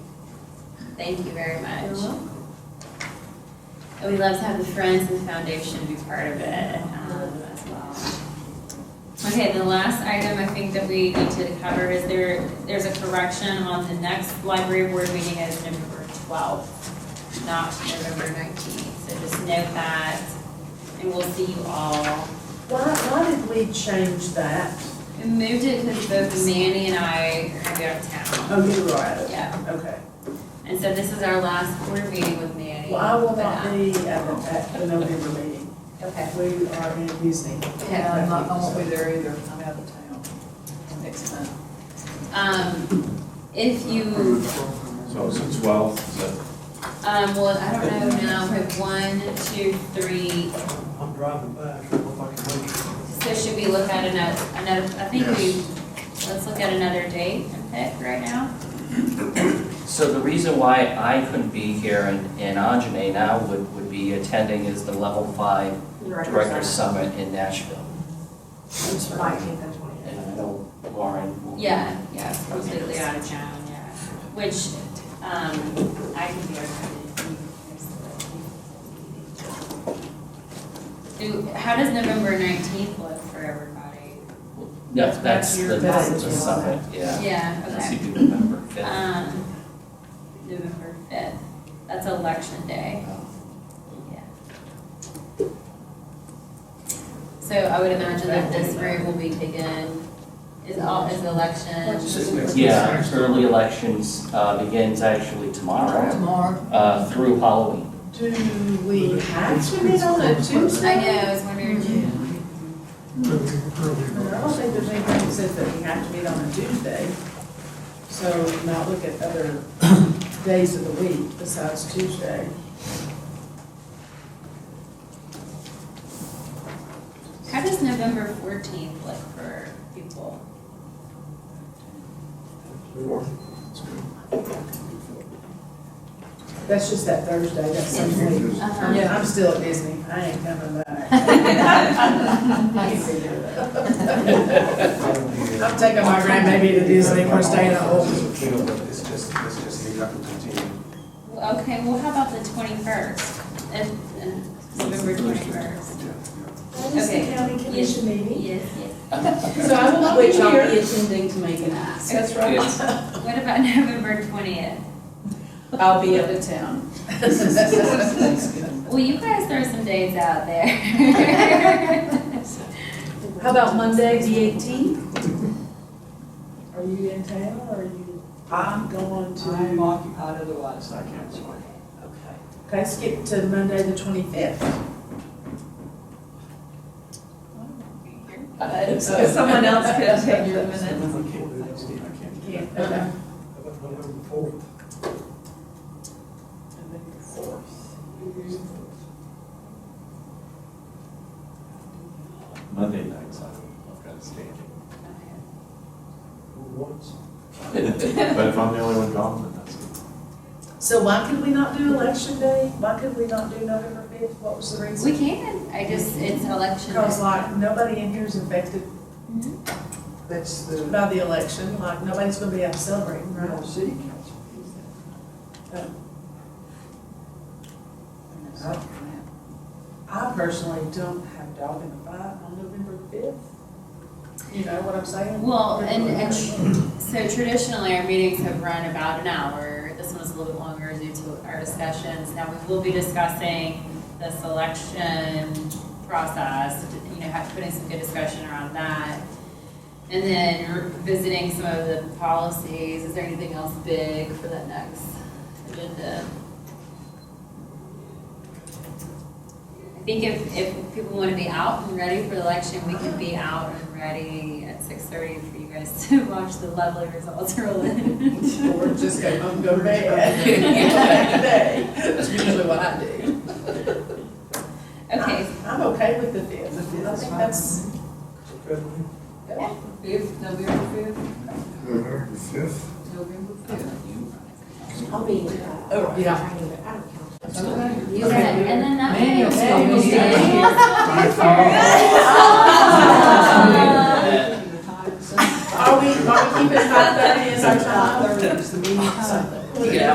Thank you very You're much. welcome. And we love to have the friends and the foundation be part of it um, as well. Okay, the last item I think that we need to cover is there, there's a correction on the next library board meeting is November twelfth, not November nineteenth. So just note that, and we'll see you all. Why, why did we change that? We moved it because both Manny and I are gonna be out of town. Oh, you're right, Yeah, okay. and so this is our last board meeting with Manny. Well, I will but, not uh, be at the, at the November meeting. Okay. We are in Disney. Yeah, I'm not, I won't be there either, I'm out of town next month. Um, if you, So it's the twelfth, so um, well, I don't know now, we have one, two, three, I'm driving back, I hope I can make it. so should we look at another, another, I think we, let's look at another date and pick right now. So the reason why I couldn't be here and, and Anjane now would, would be attending is the Level Five Director Summit in Nashville. Nineteenth and twentieth. And I know Lauren will. be- Yeah, yeah, it's completely out of town, yeah, which, um, I can be our. Do, how does November nineteenth look for everybody? No, that's the, That's the your- summit, yeah. Yeah, okay. That's due November fifth. Um, November fifth, that's election day, yeah. So I would imagine that this room will be taken, is all, is election, Yeah, early elections, uh, begins actually tomorrow, Tomorrow, uh, through Halloween. Do we have to meet on a Tuesday? I know, I was wondering. I don't think there's anything that says that we have to meet on a Tuesday. So now look at other days of the week besides Tuesday. How does November fourteenth look for people? That's just that Thursday, that's the week. Uh-huh. Yeah, I'm still at Disney, I ain't coming back. I'm taking my grandbaby to Disney, we're staying at home. It's just, it's just leave that and continue. Well, Okay, well, how about the twenty-first, if, uh, November twenty-first? is the Okay. county commission meeting. Yes, yes. So I will not be Which I'll here. be attending to make an ask. That's right. It's- What about November twentieth? I'll be out of town. Well, you guys throw some dates out there. How about Monday, the eighteenth? Are you in town or are you I'm, going to? I'm occupied otherwise, I can't. Okay. Okay, skip to Monday, the twenty-fifth. But someone else could take your I minutes. can't do that one, I can't. Yeah. Okay. How about November fourth? Monday nights, I've I've got to stay. Once. But if I'm the only one gone, then that's. So why could we not do election day? Why could we not do November fifth? What was the We reason? can, I just, it's election. Because like, nobody in here is affected Mhm. That's the, by the election, like, nobody's gonna be out celebrating, no, right? city council. Oh. I- I personally don't have dog in the fight on November fifth. You know what I'm saying? Well, and, and so traditionally, our meetings have run about an hour. This one was a little bit longer due to our discussions. Now, we will be discussing the selection process, you know, have- putting some good discussion around that. And then visiting some of the policies. Is there anything else big for that next agenda? I think if, if people want to be out and ready for the election, we can be out and ready at six thirty for you guys to watch the lovely results roll in. Or just go home, go to bed. That's usually what I do. Okay, I'm okay with the fifth. The fifth I is think fine. that's, Okay. Mm-hmm. Fifth, November fifth, November fifth? November fifth. I'll be. oh, yeah. Okay. you said, and then that. Manuel's way- gonna be Are we, are we keeping five thirty as our time? Five thirty is the meeting, so. Yeah.